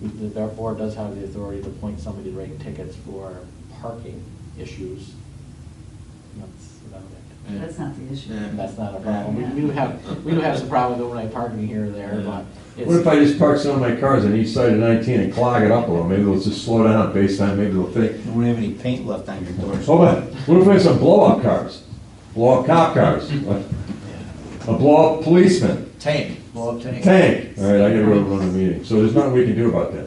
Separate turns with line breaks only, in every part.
we- Um, the- our board does have the authority to appoint somebody to write tickets for parking issues. That's about it.
That's not the issue.
Yeah.
That's not a problem. We- We do have, we do have some problem with overnight parking here or there, but it's.
What if I just park some of my cars on each side of 19 and clog it up a little? Maybe they'll just slow down based on, maybe they'll think,
You won't have any paint left on your doors.
hold on, what if we have some blow-up cars? Blow-up cop cars? A blow-up policeman?
Tank, blow up tank.
Tank? All right, I gotta go run a meeting. So there's nothing we can do about that.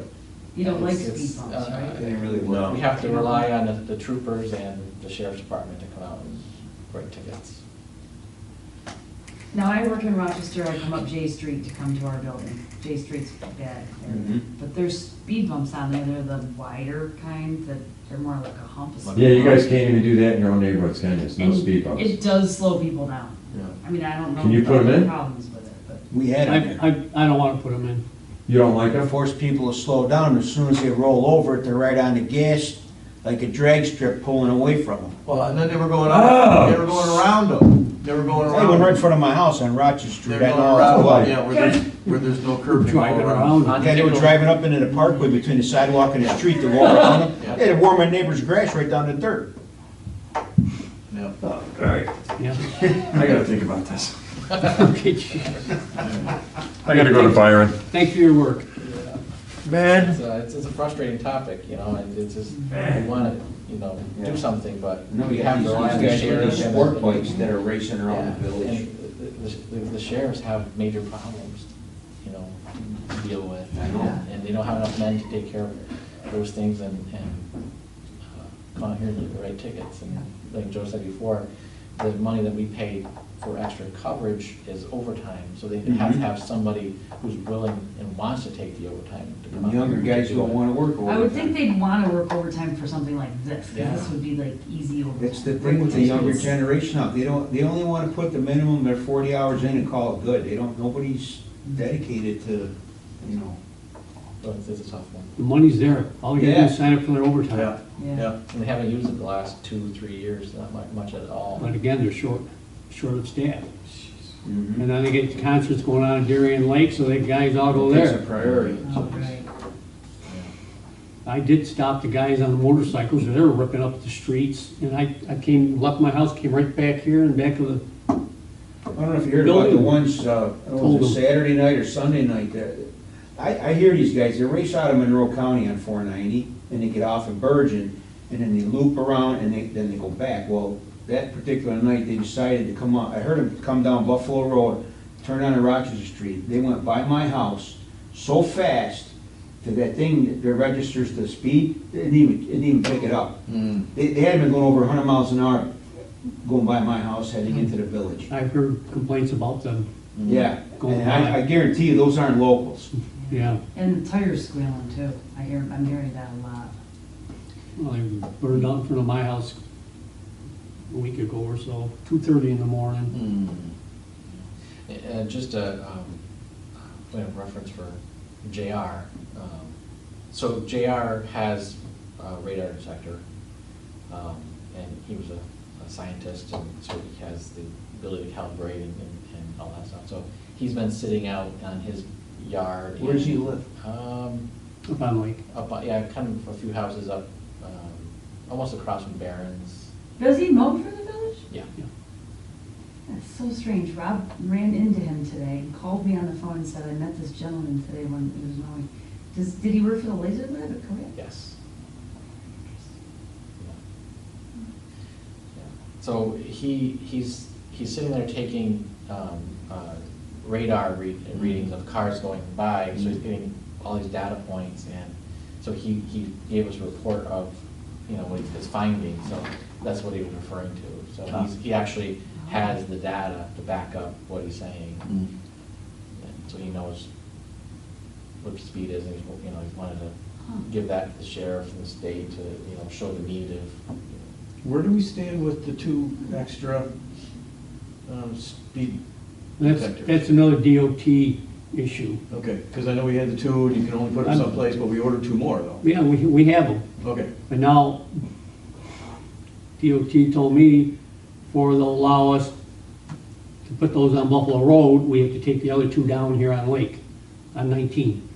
You don't like speed
It's-
bumps, right?
uh,
It didn't really
We
work.
have to rely on the- the troopers and the sheriff's department to come out and write tickets.
Now, I work in Rochester, I come up J Street to come to our building. J Street's bad area,
Mm-hmm.
Mhm.
but there's speed bumps on there, they're the wider kind, that they're more like a hump. It's-
Yeah, you guys can't even do that in your own neighborhoods, can you? There's no
And
speed
It
bumps.
does slow people down.
Yeah.
I mean, I don't know.
Can you put 'em in?
Problems with it, but.
We had
I,
it
I,
there.
I don't wanna put them in.
You don't like
It
them?
forced people to slow down. As soon as they roll over it, they're right on the gas, like a drag strip pulling away from them.
Well, and then they were going
Oh.
up, they were going around them, they were going
They went right in
around.
front of my house on Rochester
They
Street.
were
I
going
know how to
around,
why.
yeah, where there's, where there's no curb. they go
Driving around.
Yeah, they were driving up into the parkway between the sidewalk and the street to walk around them. They had to warm my neighbor's grass right down to dirt.
Yeah.
All right,
Yeah.
I gotta think about this.
Okay, gee.
I gotta go to Byron.
Thanks for your work.
Man.
It's a, it's- it's a frustrating topic, you know, and it's just, we want to, you know, do something, but we have to rely on the sheriff. and-
are racing
Yeah, and the- the- The sheriffs have major problems, you know, to deal with. And they don't have enough men to take care of those things and, and uh, come out here and write tickets. And like Joe said before, the money that we pay for extra coverage is overtime, so they have to
Mm-hmm.
have somebody who's willing and wants to take the overtime to come out.
And younger
here and
guys
do
don't
it.
wanna work overtime.
I would think they'd wanna work overtime for something like this, 'cause this
Yeah.
would be like easy overtime.
It's the thing with the younger generation now, they don't, they only wanna put the minimum of forty hours in and call it good. They don't, nobody's dedicated to, you know.
So it's it's a tough one.
The money's there. All you do
Yeah.
is sign up for their
Yeah,
overtime.
Yeah.
yeah.
And they haven't used it the last two, three years, not mu- much at all.
But again, they're short, short of staff. And then they get concerts going on in Darien Lake, so they guys all go
It's a
there.
priority.
Oh, right.
I did stop the guys on the motorcycles, they were ripping up the streets, and I, I came, left my house, came right back here and back to the,
I don't know if you heard about the
Building.
ones, uh, I don't know, if it was
Told
Saturday night or Sunday night, that, I, I hear these guys, they race out of Monroe County on four ninety, and they get off in Bergen, and then they loop around, and they, then they go back. Well, that particular night, they decided to come on, I heard them come down Buffalo Road, turn onto Rochester Street, they went by my house so fast that that thing that registers the speed, it didn't even, it didn't even pick it up.
Hmm.
Mm.
They, they had been going over hundred miles an hour, going by my house, heading into the village.
I've heard complaints about them,
Yeah,
Going
and I, I
by.
guarantee you, those aren't locals.
yeah.
And the tires squealing too. I hear, I'm hearing that a lot.
Well, they burned out in front of my house a week ago or so, two thirty in the morning.
And just a um, point of reference for JR. um, So JR has a radar detector, um, and he was a a scientist, and so he has the ability to calibrate and and- and all that stuff. So he's been sitting out on his yard.
Where does he
and,
live?
um,
Up on Lake.
Up, on- yeah, kind of a few houses up, um, almost across from Barron's.
Does he mow for the village?
Yeah.
That's so strange. Rob ran into him today, and called me on the phone and said, I met this gentleman today when he was mowing. Does, did he work for the laser lab at Korea?
Yes. Yeah. So he, he's, he's sitting there taking um, uh, radar read- readings of cars going by, so he's getting all these data points, and so he, he gave us a report of, you know, what his findings, so that's what he was referring to. So he's, he actually has the data to back up what he's saying,
Hmm.
Mm.
and so he knows what the speed is, and he's, you know, he wanted to
Huh.
give that to the sheriff and the state to, you know, show the need of, you
Where do we stand with the two extra um, speed
That's,
detectors?
that's another DOT issue.
Okay, because I know we had the two, and you can only put them
I'm-
someplace, but we ordered two more, though.
Yeah, we, we have them,
Okay,
but now DOT told me for they'll allow us to put those on Buffalo Road, we have to take the other two down here on Lake, on nineteen.